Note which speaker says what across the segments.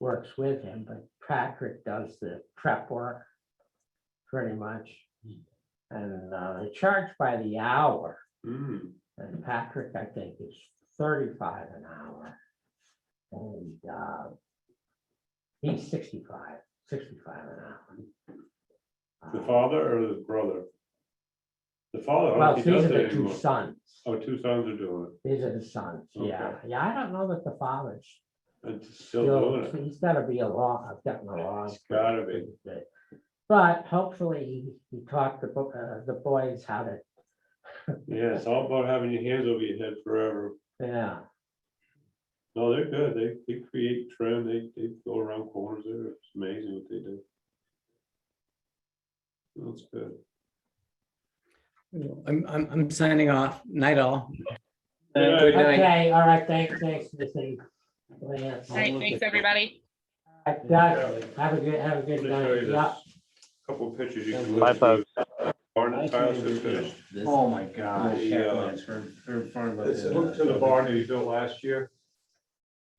Speaker 1: works with him, but Patrick does the prep work. Pretty much. And uh, they charge by the hour,
Speaker 2: Mm,
Speaker 1: and Patrick, I think, is thirty-five an hour. And uh. He's 65, 65 an hour.
Speaker 3: The
Speaker 1: Uh,
Speaker 3: father or the brother? The father, I
Speaker 1: Well, these
Speaker 3: don't think he does
Speaker 1: are
Speaker 3: it
Speaker 1: the two
Speaker 3: anymore.
Speaker 1: sons.
Speaker 3: Oh, two sons are doing
Speaker 1: These are the sons, yeah. Yeah, I don't know that the father's
Speaker 3: it, and still doing
Speaker 1: still,
Speaker 3: it.
Speaker 1: he's gotta be a law, I've gotten a law.
Speaker 3: It's gotta be.
Speaker 1: But- But hopefully he- he taught the, bo- uh, the boys how to,
Speaker 3: Yeah, it's all about having your hands over your head forever.
Speaker 1: yeah,
Speaker 3: No, they're good. They, they create trim, they, they go around corners there. It's amazing what they do. That's good.
Speaker 4: I'm, I'm, I'm signing off. Night all.
Speaker 3: Good
Speaker 2: Good
Speaker 3: night.
Speaker 2: night.
Speaker 1: okay, all right, thanks, thanks, Missy. Lance.
Speaker 5: All right, thanks, everybody.
Speaker 1: All right, guys, Have a good, have a
Speaker 3: Let
Speaker 1: good
Speaker 3: me show
Speaker 1: night,
Speaker 3: you
Speaker 1: yeah.
Speaker 3: this. Couple of pictures you can.
Speaker 2: Bye,
Speaker 3: look at. Barn and Tyler just finished.
Speaker 2: this-
Speaker 6: Oh, my gosh.
Speaker 3: The,
Speaker 6: yeah,
Speaker 3: uh,
Speaker 6: it's right- right in front of us.
Speaker 2: This is-
Speaker 3: Look to the barn that he built last year.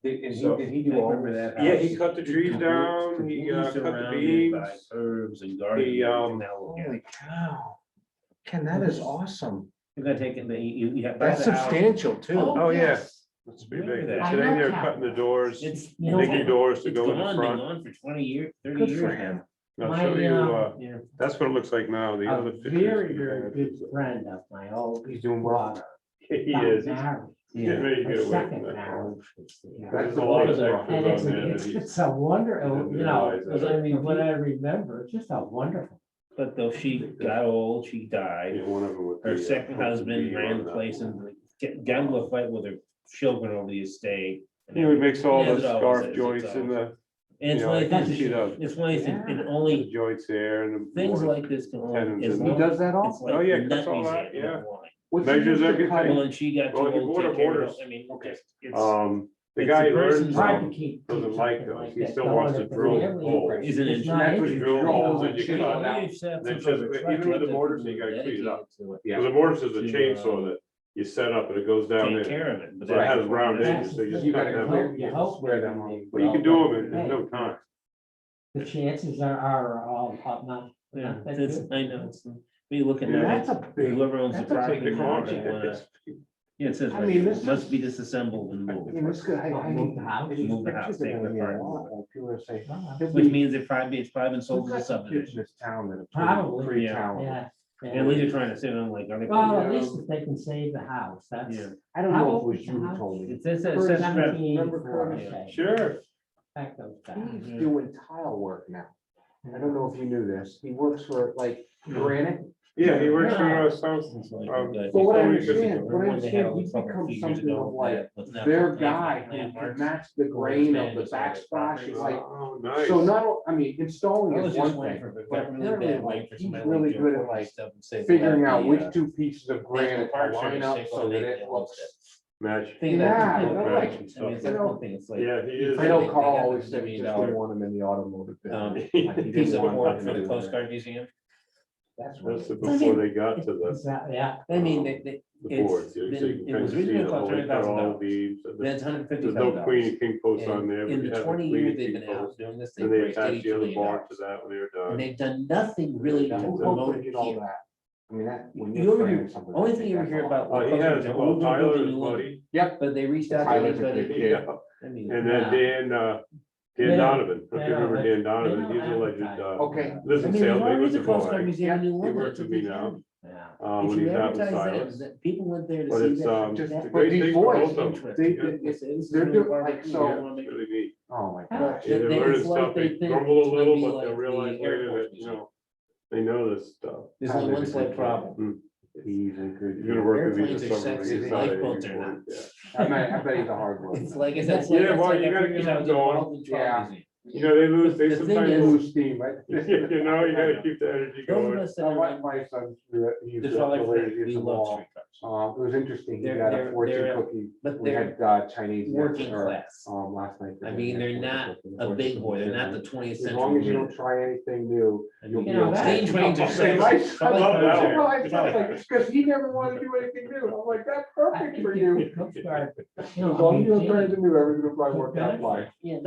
Speaker 6: Did is
Speaker 3: so-
Speaker 6: he, did he do
Speaker 2: I
Speaker 6: all?
Speaker 2: remember
Speaker 6: this?
Speaker 2: that
Speaker 3: Yeah, he cut the trees down, he, uh, cut
Speaker 6: Completely
Speaker 3: the
Speaker 6: surrounded by
Speaker 3: beams.
Speaker 6: Herbs and gardens.
Speaker 3: He, um,
Speaker 6: and everything that we'll
Speaker 2: Holy cow.
Speaker 6: get.
Speaker 2: Ken, that is awesome.
Speaker 6: You're gonna take it, you, you- you have.
Speaker 2: That's
Speaker 6: the house.
Speaker 2: substantial too.
Speaker 3: Oh, yeah.
Speaker 1: yes.
Speaker 3: It's pretty
Speaker 6: Look
Speaker 3: big.
Speaker 6: at
Speaker 3: Today
Speaker 6: that.
Speaker 1: I
Speaker 3: they're
Speaker 1: love
Speaker 3: cutting the doors,
Speaker 6: It's.
Speaker 1: You know
Speaker 3: digging
Speaker 1: what?
Speaker 3: doors to
Speaker 6: It's
Speaker 3: go in
Speaker 6: gone,
Speaker 3: the
Speaker 6: been
Speaker 3: front.
Speaker 6: gone for twenty years, thirty
Speaker 2: Good for
Speaker 6: years.
Speaker 2: him.
Speaker 3: I'll
Speaker 1: My,
Speaker 3: show you,
Speaker 1: um,
Speaker 3: uh,
Speaker 6: Yeah.
Speaker 3: that's what it looks like now, the other
Speaker 1: A
Speaker 3: pictures.
Speaker 1: very,
Speaker 3: we
Speaker 1: very
Speaker 3: had.
Speaker 1: good friend of my old.
Speaker 2: He's doing well.
Speaker 1: daughter
Speaker 3: He
Speaker 1: got
Speaker 3: is, he's
Speaker 1: married,
Speaker 3: getting
Speaker 6: Yeah.
Speaker 3: ready to
Speaker 1: her
Speaker 3: get away
Speaker 1: second
Speaker 3: from that.
Speaker 1: marriage, yeah.
Speaker 3: There's a lot
Speaker 1: And
Speaker 3: of sections
Speaker 1: it's,
Speaker 3: on there
Speaker 1: it's,
Speaker 3: that he-
Speaker 1: it's a wonder,
Speaker 3: he didn't
Speaker 1: you know,
Speaker 3: realize
Speaker 1: because
Speaker 3: that.
Speaker 1: I mean, what I remember, it's just a wonderful.
Speaker 6: But though she got old, she died.
Speaker 3: yeah, one of them with
Speaker 6: Her
Speaker 3: the, uh,
Speaker 6: second husband
Speaker 3: bee
Speaker 6: ran
Speaker 3: on
Speaker 6: the
Speaker 3: that.
Speaker 6: place and get- got into a fight with her children over the estate. and
Speaker 3: He would mix all
Speaker 6: Yeah,
Speaker 3: the
Speaker 6: it always is,
Speaker 3: scarf
Speaker 6: it's
Speaker 3: joints and the,
Speaker 6: And
Speaker 3: you
Speaker 6: it's
Speaker 3: know,
Speaker 6: one of the
Speaker 3: like,
Speaker 6: things,
Speaker 3: you know,
Speaker 6: it's one of the things, and
Speaker 3: the
Speaker 6: only
Speaker 3: joints there and. the
Speaker 6: things
Speaker 3: boards.
Speaker 6: like this can only.
Speaker 3: Tenons
Speaker 6: as
Speaker 3: and-
Speaker 2: He
Speaker 6: long-
Speaker 2: does that
Speaker 6: It's
Speaker 2: all.
Speaker 6: like
Speaker 3: Oh, yeah, cuts
Speaker 6: nut
Speaker 3: all
Speaker 6: reset
Speaker 3: that,
Speaker 6: with
Speaker 3: yeah.
Speaker 6: wine.
Speaker 2: What's he
Speaker 3: Measures
Speaker 2: used to
Speaker 3: everything.
Speaker 2: cut
Speaker 6: Well,
Speaker 2: it?
Speaker 6: and she got too
Speaker 3: Well,
Speaker 6: old
Speaker 3: he
Speaker 6: to
Speaker 3: order
Speaker 6: take care of
Speaker 3: orders.
Speaker 6: it. I mean, it's, it's,
Speaker 3: Um, the
Speaker 6: It's a
Speaker 3: guy learned
Speaker 6: person's
Speaker 1: Hard to
Speaker 3: from,
Speaker 1: keep. keep
Speaker 3: doesn't like
Speaker 1: something
Speaker 3: those.
Speaker 1: like
Speaker 3: He
Speaker 1: that
Speaker 3: still
Speaker 1: going,
Speaker 3: wants to
Speaker 1: but it's
Speaker 3: drill
Speaker 1: really
Speaker 3: holes.
Speaker 1: impressive.
Speaker 6: Isn't it-
Speaker 1: It's not
Speaker 3: That's what you drill
Speaker 1: easy.
Speaker 3: holes that you
Speaker 1: Yeah.
Speaker 3: cut out.
Speaker 6: You just have
Speaker 3: Then
Speaker 6: some
Speaker 3: just-
Speaker 6: sort of
Speaker 3: even with the
Speaker 6: contractor
Speaker 3: mortars,
Speaker 6: who's
Speaker 3: you gotta clean it up.
Speaker 6: dedicated to it.
Speaker 2: Yeah.
Speaker 3: the mortise is a
Speaker 6: To,
Speaker 3: chainsaw
Speaker 6: uh,
Speaker 3: that you set up and it goes down
Speaker 6: Take
Speaker 3: there.
Speaker 6: care of it. but
Speaker 3: So it
Speaker 6: that's-
Speaker 3: has round
Speaker 6: that's-
Speaker 3: edges, so you just
Speaker 1: You
Speaker 3: cut
Speaker 1: gotta
Speaker 3: them
Speaker 1: hope-
Speaker 3: out.
Speaker 1: you hope they-
Speaker 2: Square them all.
Speaker 1: they-
Speaker 3: But you can do them in, in no time.
Speaker 1: The chances are, are all, are not.
Speaker 6: Yeah, it's, I know, it's, we look at
Speaker 3: Yeah.
Speaker 6: that,
Speaker 2: That's a big,
Speaker 6: whoever owns the
Speaker 2: that's a
Speaker 3: The
Speaker 6: property.
Speaker 2: big
Speaker 3: car,
Speaker 6: owns it,
Speaker 3: it's-
Speaker 6: wanna- Yeah, it says,
Speaker 2: I
Speaker 6: right
Speaker 2: mean,
Speaker 6: here,
Speaker 2: this
Speaker 6: must be disassembled and
Speaker 2: I mean, this
Speaker 6: moved.
Speaker 2: guy, I,
Speaker 1: Move the
Speaker 2: I,
Speaker 1: house.
Speaker 2: these
Speaker 6: Move the
Speaker 2: pictures
Speaker 6: house,
Speaker 2: are
Speaker 6: take
Speaker 2: gonna
Speaker 6: the
Speaker 2: be a
Speaker 6: part.
Speaker 2: lot, like you were saying.
Speaker 1: Wow.
Speaker 2: There's
Speaker 6: Which
Speaker 2: been-
Speaker 6: means if probably it's probably been sold
Speaker 2: we've
Speaker 6: as a
Speaker 2: got some kids
Speaker 6: subdivision.
Speaker 2: in This town that are.
Speaker 1: Probably,
Speaker 2: Free
Speaker 6: yeah.
Speaker 2: town.
Speaker 1: Yeah.
Speaker 6: At least you're trying to say, I'm like, are they?
Speaker 1: Well, at least if they can save the house, that's.
Speaker 6: Yeah.
Speaker 2: I don't know if it was you who told me.
Speaker 6: It says, it says, scrap-
Speaker 2: remember
Speaker 1: 1784,
Speaker 2: Curtis?
Speaker 1: okay.
Speaker 3: Sure.
Speaker 1: Back those back.
Speaker 2: He's
Speaker 6: Yeah.
Speaker 2: doing tile work now. I don't know if you knew this. He works for like granite.
Speaker 3: Yeah, he works for
Speaker 1: Yeah.
Speaker 3: us, so
Speaker 6: it's like,
Speaker 3: Um,
Speaker 6: like-
Speaker 2: Well, what
Speaker 3: Before
Speaker 2: I
Speaker 3: we could-
Speaker 2: understand, what I
Speaker 6: Remember when they had
Speaker 2: understand,
Speaker 6: all
Speaker 2: he's
Speaker 6: the fucking
Speaker 2: become
Speaker 6: figures
Speaker 2: something
Speaker 6: ago,
Speaker 2: of like,
Speaker 6: yeah, wasn't that
Speaker 2: their
Speaker 6: what-
Speaker 2: guy
Speaker 6: yeah,
Speaker 2: had to
Speaker 6: Mark's-
Speaker 2: match the grain of the backsplash. It's like,
Speaker 3: Oh, nice.
Speaker 2: so not, o- I mean,
Speaker 6: I
Speaker 2: installing
Speaker 6: was
Speaker 2: is
Speaker 6: just
Speaker 2: one
Speaker 6: waiting
Speaker 2: thing,
Speaker 6: for, it,
Speaker 2: but
Speaker 6: got really
Speaker 2: apparently
Speaker 6: bad
Speaker 2: like,
Speaker 6: wait for
Speaker 2: he's
Speaker 6: somebody.
Speaker 2: really
Speaker 6: to
Speaker 2: good
Speaker 6: do
Speaker 2: at like
Speaker 6: stuff and say,
Speaker 2: figuring out
Speaker 6: the,
Speaker 2: which
Speaker 6: uh,
Speaker 2: two pieces of granite
Speaker 6: Park
Speaker 2: line
Speaker 6: Service,
Speaker 2: up
Speaker 6: they
Speaker 2: so
Speaker 6: go,
Speaker 2: that
Speaker 6: they-
Speaker 2: it
Speaker 6: they
Speaker 2: looks.
Speaker 3: Match.
Speaker 6: thing
Speaker 2: Yeah,
Speaker 6: that
Speaker 2: I
Speaker 6: people
Speaker 2: know,
Speaker 6: do.
Speaker 2: like,
Speaker 6: I mean, it's
Speaker 2: you
Speaker 6: like
Speaker 2: know,
Speaker 6: one thing, it's like.
Speaker 3: Yeah, he is.
Speaker 2: I know
Speaker 6: they- they
Speaker 2: Carl
Speaker 6: got
Speaker 2: always
Speaker 6: the
Speaker 2: said we
Speaker 6: million
Speaker 2: just
Speaker 6: dollar-
Speaker 2: didn't want him in the automotive.
Speaker 6: um,
Speaker 2: business. Like, he
Speaker 6: Piece
Speaker 2: didn't
Speaker 6: of
Speaker 2: want
Speaker 6: work
Speaker 2: him
Speaker 6: for
Speaker 2: to
Speaker 6: the
Speaker 2: do that.
Speaker 6: postcard museum.
Speaker 2: That's
Speaker 3: That's the-
Speaker 2: right.
Speaker 3: before they got to the,
Speaker 1: Exactly, yeah.
Speaker 6: I mean, they, they,
Speaker 3: the
Speaker 6: It's-
Speaker 3: boards. you know, so you
Speaker 6: then
Speaker 3: can
Speaker 6: it
Speaker 3: kind of
Speaker 6: was
Speaker 3: see
Speaker 6: originally
Speaker 3: the whole-
Speaker 6: called
Speaker 3: they cut all
Speaker 6: $20,000.
Speaker 3: leaves, and the-
Speaker 6: that's hundred fifty
Speaker 3: There's
Speaker 6: thousand
Speaker 3: no queen
Speaker 6: dollars.
Speaker 3: and king posts on there. but
Speaker 6: In
Speaker 3: you
Speaker 6: the
Speaker 3: have
Speaker 6: twenty
Speaker 3: queen
Speaker 6: years
Speaker 3: and
Speaker 6: they've
Speaker 3: king
Speaker 6: been out
Speaker 3: posts,
Speaker 6: doing this, they've
Speaker 3: And they
Speaker 6: raised
Speaker 3: attach
Speaker 6: eighty
Speaker 3: the other
Speaker 6: million
Speaker 3: barn
Speaker 6: dollars.
Speaker 3: to that when they're
Speaker 6: And
Speaker 3: done.
Speaker 6: they've done nothing really to
Speaker 2: Yeah, who
Speaker 6: promote
Speaker 2: opened
Speaker 6: it
Speaker 2: it all
Speaker 6: here.
Speaker 2: that? I mean, that. when
Speaker 6: You
Speaker 2: you're
Speaker 6: ever hear-
Speaker 2: framing something,
Speaker 6: only thing you ever
Speaker 2: that's
Speaker 6: hear
Speaker 2: all.
Speaker 6: about-
Speaker 3: Oh, he has, well, Tyler is buddy.
Speaker 6: But they reached out to
Speaker 2: Tyler's a
Speaker 6: everybody.
Speaker 2: good kid.
Speaker 6: I mean,
Speaker 3: And then Dan, uh,
Speaker 1: Yeah.
Speaker 3: Dan Donovan, if you remember Dan
Speaker 1: Yeah.
Speaker 3: Donovan, he's a legend, uh,
Speaker 2: Okay.
Speaker 3: lives
Speaker 6: I
Speaker 3: in Salem,
Speaker 6: mean, there's
Speaker 3: he
Speaker 6: always
Speaker 3: was
Speaker 6: a
Speaker 3: a
Speaker 6: postcard
Speaker 3: boy.
Speaker 6: museum in New
Speaker 3: He
Speaker 6: Orleans.
Speaker 3: works with me now,
Speaker 1: Yeah.
Speaker 3: uh,
Speaker 6: If
Speaker 3: when
Speaker 6: you
Speaker 3: he's out in
Speaker 6: advertise that,
Speaker 3: silence.
Speaker 6: that people went there to
Speaker 3: But
Speaker 6: see
Speaker 3: it's, um,
Speaker 6: that.
Speaker 2: just
Speaker 6: that
Speaker 3: The
Speaker 2: But
Speaker 3: great
Speaker 2: these
Speaker 3: thing for
Speaker 2: boys,
Speaker 3: both of them.
Speaker 6: interest.
Speaker 2: They,
Speaker 3: Yeah.
Speaker 2: they,
Speaker 6: It's- it's
Speaker 2: they're
Speaker 6: really
Speaker 2: doing, like,
Speaker 6: barbecue,
Speaker 2: so-
Speaker 6: you
Speaker 3: It's
Speaker 6: know, like-
Speaker 3: really neat.
Speaker 2: oh my
Speaker 1: Yeah.
Speaker 2: gosh.
Speaker 3: Yeah,
Speaker 6: They-
Speaker 3: They're
Speaker 6: they-
Speaker 3: learning
Speaker 6: it's like
Speaker 3: stuff,
Speaker 6: they
Speaker 3: they
Speaker 6: think
Speaker 3: grumble
Speaker 6: it's
Speaker 3: a
Speaker 6: gonna
Speaker 3: little,
Speaker 6: be
Speaker 3: but they'll
Speaker 6: like the
Speaker 3: realize later
Speaker 6: airport
Speaker 3: that, you
Speaker 6: museum.
Speaker 3: know, they know this stuff.
Speaker 6: There's only one slight problem.
Speaker 3: Mm.
Speaker 2: He's a good.
Speaker 3: You're gonna work with
Speaker 6: Airplanes
Speaker 3: these
Speaker 6: are
Speaker 3: or something.
Speaker 6: sexy,
Speaker 3: you
Speaker 6: they
Speaker 3: decide
Speaker 6: like
Speaker 3: you
Speaker 6: boats
Speaker 3: can
Speaker 6: or
Speaker 3: work, yeah.
Speaker 2: I bet, I bet he's a hard worker.
Speaker 6: It's like, it's like.
Speaker 3: Yeah,
Speaker 6: it's
Speaker 3: well,
Speaker 6: like
Speaker 3: you
Speaker 6: I
Speaker 3: gotta
Speaker 6: figured
Speaker 3: keep
Speaker 6: out
Speaker 3: it
Speaker 6: the
Speaker 3: going.
Speaker 6: Arnold Truck
Speaker 2: Yeah.
Speaker 6: Museum.
Speaker 3: You know, they lose,
Speaker 6: The
Speaker 3: they
Speaker 6: thing
Speaker 3: sometimes
Speaker 6: is-
Speaker 3: lose,
Speaker 2: Lose steam, right?
Speaker 3: you know, you gotta keep the energy
Speaker 6: Those
Speaker 3: going.
Speaker 6: of us that
Speaker 2: My
Speaker 6: are
Speaker 2: wife,
Speaker 6: like,
Speaker 2: my son, he's the
Speaker 6: there's all like,
Speaker 2: laziest
Speaker 6: we
Speaker 2: of
Speaker 6: love
Speaker 2: all.
Speaker 6: street trucks,
Speaker 2: Uh, it was interesting, he
Speaker 6: They're-
Speaker 2: got a
Speaker 6: they're-
Speaker 2: fortune
Speaker 6: they're-
Speaker 2: cookie,
Speaker 6: but
Speaker 2: we
Speaker 6: they're
Speaker 2: had uh, Chinese.
Speaker 6: working
Speaker 2: dinner,
Speaker 6: class.
Speaker 2: Um, last night.
Speaker 6: I mean, they're not a big boy, they're not the twentieth
Speaker 2: As
Speaker 6: century.
Speaker 2: long as you
Speaker 6: minute.
Speaker 2: don't try anything new,
Speaker 6: I
Speaker 2: you'll
Speaker 6: mean,
Speaker 2: be.
Speaker 1: You know,
Speaker 2: okay.
Speaker 6: Stage trains are
Speaker 2: Okay,
Speaker 6: sexy.
Speaker 2: my
Speaker 6: I
Speaker 2: son-
Speaker 3: love that.
Speaker 2: No, I sound like, Cause he never wanted to do anything new, I'm like, that's perfect for you.
Speaker 1: Coast Guard, you
Speaker 2: As
Speaker 1: know, I
Speaker 2: long as
Speaker 1: mean,
Speaker 2: you don't try
Speaker 1: Jim-
Speaker 2: anything new, everything will probably work out
Speaker 1: Benefit.
Speaker 2: fine.
Speaker 6: Yeah,